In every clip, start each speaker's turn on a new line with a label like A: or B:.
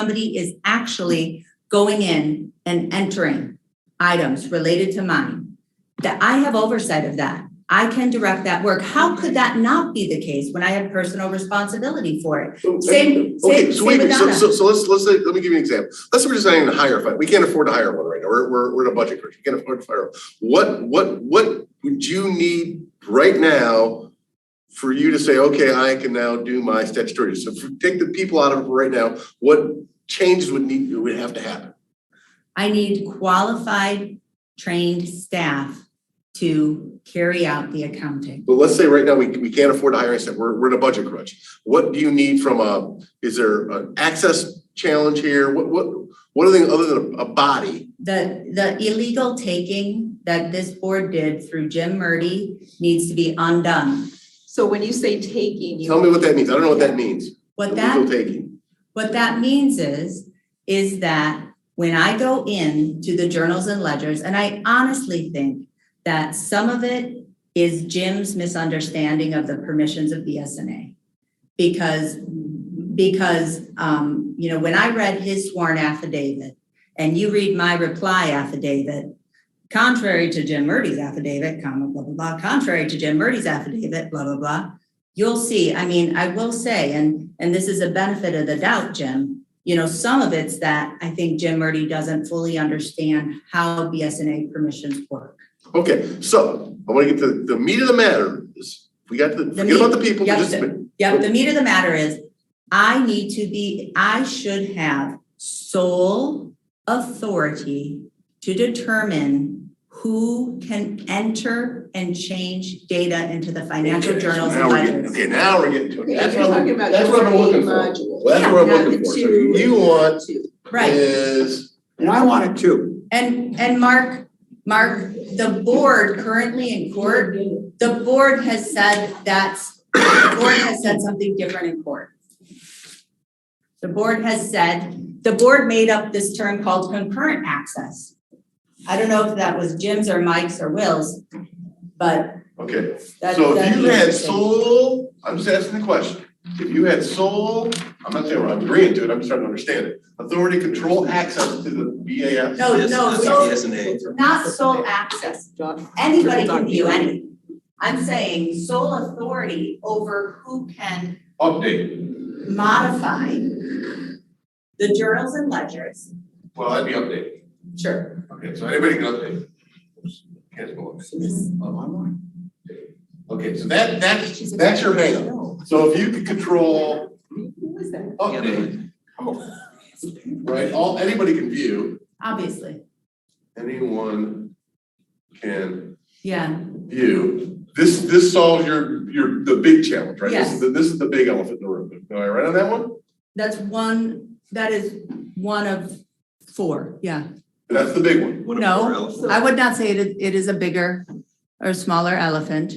A: somebody is actually going in and entering items related to mine, that I have oversight of that. I can direct that work. How could that not be the case when I have personal responsibility for it?
B: So,
A: Same-
B: Okay,
A: same-
B: so wait,
A: same with
B: so,
A: Donna.
B: so, so let's, let's, say- let me give you an example. Let's say we're deciding to hire a fight. We can't afford to hire one right now. We're, we're, we're in a budget crunch. We can't afford to fire. one. What, what, what would you need right now for you to say, okay, I can now do my statutory? So if we take the people out of it right now, what changes would need, would have to happen?
A: I need qualified, trained staff to carry out the accounting.
B: But let's say right now, we, we can't afford to hire, I said, we're, we're in a budget crunch. What do you need from a, is there an access challenge here? What, what, what are things other than a a body?
A: The, the illegal taking that this board did through Jim Murdy needs to be undone.
C: So when you say taking,
B: Tell me
C: you,
B: what that means. I don't know what that means.
A: What that
B: Illegal taking.
A: What that means is, is that when I go in to the journals and ledgers, and I honestly think that some of it is Jim's misunderstanding of the permissions of BSNA. Because, because, um, you know, when I read his sworn affidavit and you read my reply affidavit, contrary to Jim Murdy's affidavit, comma, blah, blah, blah, contrary to Jim Murdy's affidavit, blah, blah, blah, you'll see, I mean, I will say, and, and this is a benefit of the doubt, Jim. You know, some of it's that I think Jim Murdy doesn't fully understand how BSNA permissions work.
B: Okay, so I want to get to the meat of the matter. is We got to, forget about the people,
A: meat,
B: just,
A: yep. Yep, the meat of the matter is, I need to be, I should have sole authority to determine who can enter and change data into the financial
B: Okay, so
A: journals and
B: now we're getting-
A: ledgers.
B: Okay, now we're getting to it.
C: Yeah,
B: That's
C: you're
B: what I'm,
C: talking about
B: that's what I'm
C: just
B: looking
C: the
B: for.
C: module.
B: Well, That's what I'm
C: not
B: looking
C: the
B: for. So
C: two.
B: you want
A: Right.
B: is,
D: And I want it too.
A: And, and Mark, Mark, the board currently in court, the board has said that's, the board has said something different in court. The board has said, the board made up this term called concurrent access. I don't know if that was Jim's or Mike's or Will's, but
B: okay,
A: that,
B: so if
A: that'd
B: you
A: be
B: had
A: interesting.
B: sole, I'm just asking the question. If you had sole, I'm not saying I'm agreeing to it, I'm just trying to understand it. Authority, control, access to the BAS.
A: No, Oh, no, so
E: Yes, and A.
A: not sole access, anybody can view anything. I'm saying sole authority over who can
B: Update,
A: modify the journals and ledgers.
B: well, that'd be update.
A: Sure.
B: Okay, so anybody can update. Can't go up. Okay, so that, that's, that's your hang up. So if you could control
C: Who is that?
B: update, right, all, anybody can view,
A: Obviously,
B: anyone can
A: yeah,
B: view. This, this solves your, your, the big challenge, right? This is,
A: Yes.
B: the- this is the big elephant in the room. Am I right on that one?
A: that's one, that is one of four, yeah.
B: That's the big one.
E: What a
A: No.
E: poor elephant.
A: I would not say it, is- it is a bigger or smaller elephant.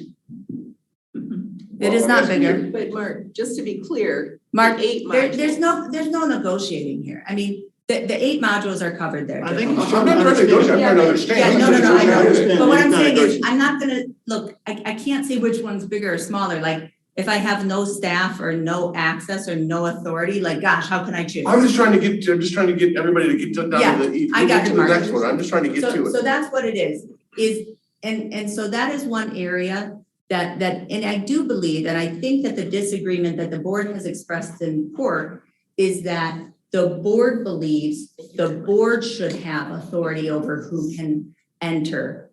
A: It is not
B: Well, that's
A: bigger.
B: weird.
C: But Mark, just to be clear.
A: Mark,
C: the eight
A: there,
C: modules-
A: there's no, there's no negotiating here. I mean, the, the eight modules are covered there.
D: I
A: Jim.
D: think-
B: I'm not trying to negotiate, I'm trying to understand.
A: Yeah, no, no, no, I
D: know.
A: But what I'm
D: Not
A: saying is,
D: negotiable.
A: I'm not gonna, look, I, I can't say which one's bigger or smaller, like, if I have no staff or no access or no authority, like, gosh, how can I choose?
B: I'm just trying to get, I'm just trying to get everybody to get to- down to the, e-
A: I
B: we'll get
A: got
B: to
A: you,
B: the
A: Mark.
B: next one, I'm just trying to get to it.
A: So, so that's what it is, is, and, and so that is one area that, that, and I do believe, and I think that the disagreement that the board has expressed in court is that the board believes the board should have authority over who can enter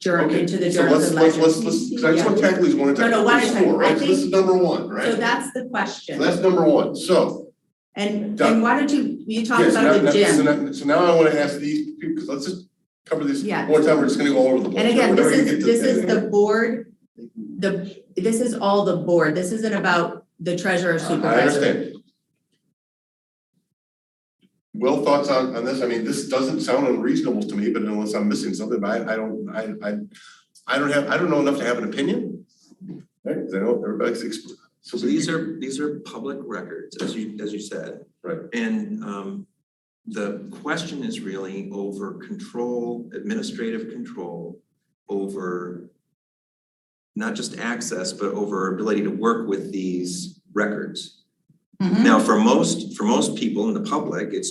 A: journal
B: Okay,
A: into the
B: so
A: journals
B: let's,
A: and
B: let's,
A: ledgers.
B: let's, let's, because I just want to tackle these one at a
A: No,
B: time.
A: no, one at a
B: There's
A: time.
B: four, right?
A: I
B: So this is number one, right?
A: So that's the
B: So
A: question.
B: that's number one, so,
A: And,
B: Done.
A: and why don't you, you talk
B: yes, now,
A: about the
B: now- so
A: gym?
B: now, so now I want to ask these, people because let's just cover these
A: Yeah.
B: one time, we're just gonna go all over the place.
A: And again,
B: We're
A: this
B: never gonna
A: is,
B: get to-
A: this is the board, the, this is all the board. This isn't about the treasurer supervisor.
B: I understand. Well, thoughts on, on this, I mean, this doesn't sound unreasonable to me, but unless I'm missing something, but I, I don't, I, I, I don't have, I don't know enough to have an opinion. Right, 'Cause I know everybody's, ex- so
E: So these are, these are public records, as you, as you said.
B: Right.
E: And um, the question is really over control, administrative control over not just access, but over ability to work with these records.
A: Mhm.
E: Now, for most, for most people in the public, it's